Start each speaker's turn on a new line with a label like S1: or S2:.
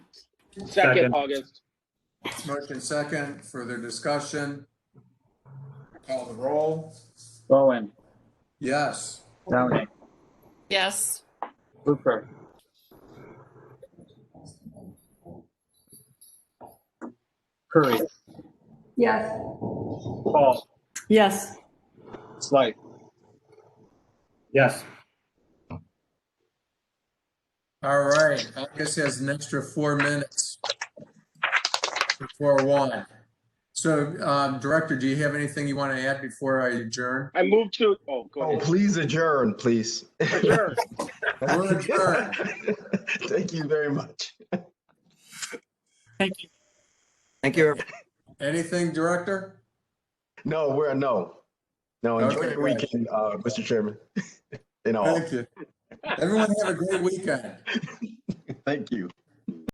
S1: Second August.
S2: Motion second, further discussion. Call the roll.
S3: Bowen,
S2: Yes.
S3: Downing,
S4: Yes.
S3: Hooper, Curry,
S5: Yes.
S3: Paul,
S5: Yes.
S3: Slight,
S1: Yes.
S2: All right, August has an extra four minutes. Before one. So, um, Director, do you have anything you want to add before I adjourn?
S1: I move to, oh, go
S6: Oh,
S1: ahead.
S6: please adjourn, please.
S1: Sure.
S2: We're adjourned.
S6: Thank you very much.
S7: Thank you.
S2: Anything, Director?
S6: No, we're, no. No, enjoy
S2: Okay,
S6: your weekend, uh, Mr. Chairman. You know,
S2: Thank you. Everyone have a great weekend.
S6: thank you.